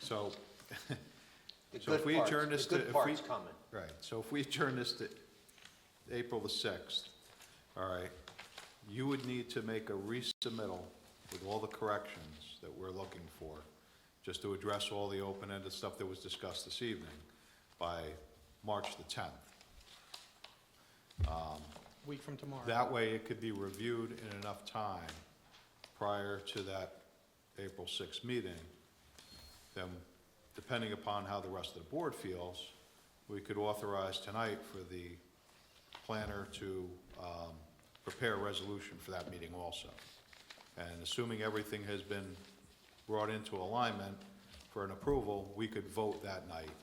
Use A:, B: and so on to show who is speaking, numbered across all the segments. A: So,
B: The
A: So if
B: good
A: we
B: parts-
A: adjourn this
B: The
A: to-
B: good
A: if we-
B: part's coming.
A: right, so if we adjourn this to April the sixth, all right, you would need to make a resubmittal with all the corrections that we're looking for, just to address all the open-ended stuff that was discussed this evening by March the tenth.
C: Week from tomorrow.
A: That way, it could be reviewed in enough time prior to that April sixth meeting. Then, depending upon how the rest of the board feels, we could authorize tonight for the planner to, um, prepare a resolution for that meeting also. And assuming everything has been brought into alignment for an approval, we could vote that night.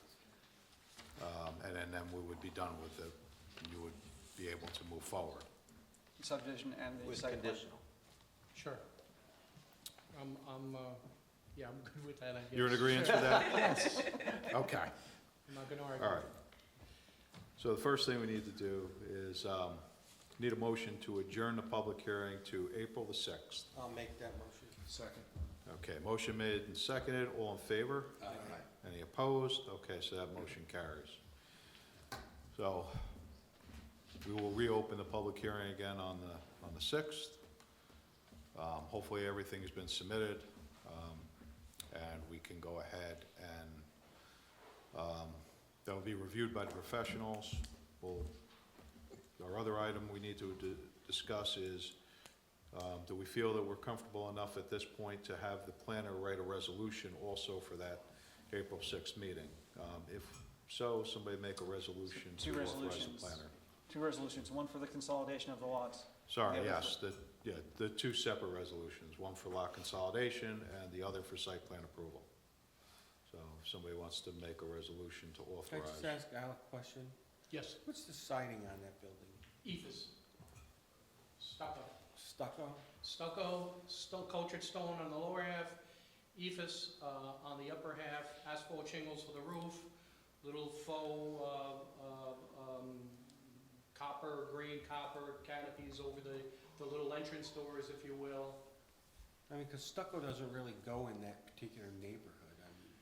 A: Um, and then, then we would be done with it, and you would be able to move forward.
D: subdivision and the
B: With
D: site plan.
B: conditional.
C: Sure. I'm, I'm, uh, yeah, I'm good with that, I guess.
A: You're in agreement
C: Sure.
A: with that? Okay,
C: I'm not gonna
A: all
C: argue.
A: right. So the first thing we need to do is, um, need a motion to adjourn the public hearing to April the sixth.
D: I'll make that motion. Second.
A: Okay, motion made and seconded, all in favor? Any opposed? Okay, so that motion carries. So, we will reopen the public hearing again on the, on the sixth. Um, hopefully everything has been submitted, um, and we can go ahead and, um, that'll be reviewed by the professionals. We'll, our other item we need to di- discuss is, um, do we feel that we're comfortable enough at this point to have the planner write a resolution also for that April sixth meeting? Um, if so, somebody make a resolution to
D: Two
A: authorize the
D: resolutions.
A: planner.
D: Two resolutions, one for the consolidation of the lots.
A: Sorry,
D: Yeah,
A: yes, the, yeah, the two separate resolutions, one for lot consolidation and the other for site plan approval. So if somebody wants to make a resolution to
E: Can I just
A: authorize,
E: ask Al a question?
C: Yes,
E: What's the siding on that building?
C: ethos. Stucco.
E: Stucco?
C: Stucco, stone, cultured stone on the lower half, ethos, uh, on the upper half, asphalt shingles for the roof, little faux, uh, uh, um, copper, green copper canopies over the, the little entrance doors, if you will.
E: I mean, 'cause stucco doesn't really go in that particular neighborhood. I mean,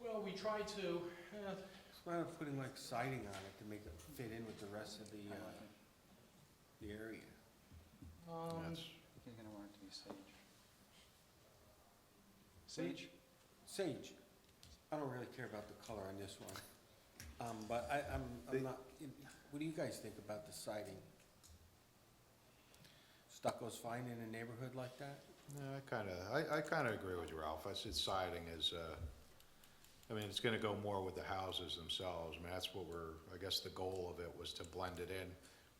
C: Well, we tried to, eh,
E: it's why I'm putting like siding on it to make it fit in with the rest of the,
D: I
E: uh,
D: like it.
E: the area.
C: um,
A: that's,
D: You're gonna want it to be sage. Sage?
E: Sage, I don't really care about the color on this one. Um, but I, I'm,
A: They-
E: I'm not, what do you guys think about the siding? Stucco's fine in a neighborhood like that?
A: no, I kinda, I, I kinda agree with you, Ralph, I said siding is, uh, I mean, it's gonna go more with the houses themselves, I mean, that's what we're, I guess the goal of it was to blend it in.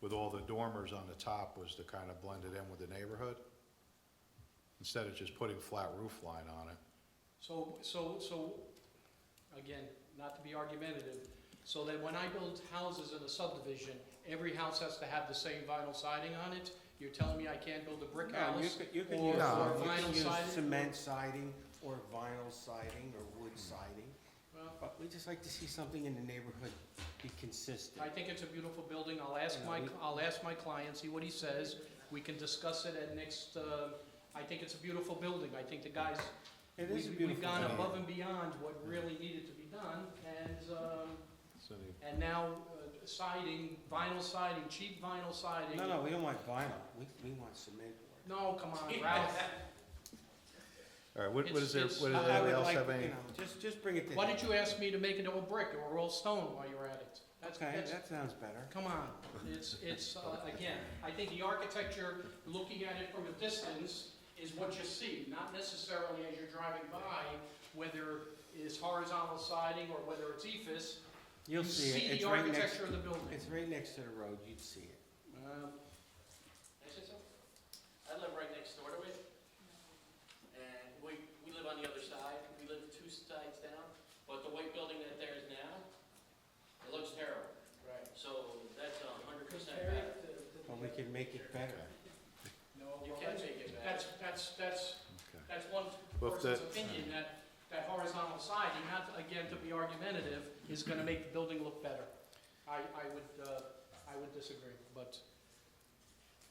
A: With all the dormers on the top was to kinda blend it in with the neighborhood, instead of just putting flat roof line on it.
C: So, so, so, again, not to be argumentative, so that when I build houses in a subdivision, every house has to have the same vinyl siding on it? You're telling me I can't build a brick
E: No, you
C: house?
E: could, you could
C: or-
E: use,
A: or
E: you
C: vinyl
E: could use
C: siding?
E: cement siding, or vinyl siding, or wood siding,
C: Well,
E: but we just like to see something in the neighborhood be consistent.
C: I think it's a beautiful building, I'll ask
E: Yeah,
C: my,
E: we-
C: I'll ask my client, see what he says, we can discuss it at next, uh, I think it's a beautiful building, I think the guys,
E: It
C: we-
E: is a
C: we've
E: beautiful
C: gone
E: building.
C: above and beyond what really needed to be done, and, um,
A: So the
C: and now uh, siding, vinyl siding, cheap vinyl siding.
E: No, no, we don't want vinyl, we, we want cement board.
C: No, come on, Ralph.
A: All right, what, what is there,
C: It's-
A: what
C: it's-
A: does
E: I- I would
A: anybody else
E: like,
A: have
E: you
A: any?
E: know, Just, just bring it to.
C: Why did you ask me to make it all brick or all stone while you're at it? That's-
E: Okay,
C: that's-
E: that sounds better.
C: Come on, it's, it's, uh, again, I think the architecture, looking at it from a distance, is what you see, not necessarily as you're driving by, whether it's horizontal siding or whether it's E ephes.
E: You'll
C: You
E: see it, it's
C: the
E: right next,
C: architecture of the building.
E: it's right next to the road, you'd see it.
C: Um, is it so?
F: I live right next door to it, and we, we live on the other side, we live two sides down, but the white building that there is now, it looks terrible,
C: Right.
F: so that's a hundred percent
C: Compare
F: bad.
C: it to- to the-
E: But we can make it better.
C: No,
F: You
C: well,
F: can
C: that's-
F: make it bad.
C: That's, that's, that's,
A: Okay.
C: that's one
A: Well, if
C: person's
A: that-
C: opinion, that, that horizontal siding, not, again, to be argumentative, is gonna make the building look better. I, I would, uh, I would disagree, but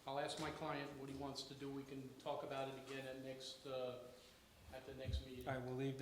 C: I'll ask my client what he wants to do, we can talk about it again at next, uh, at the next meeting.
E: I will leave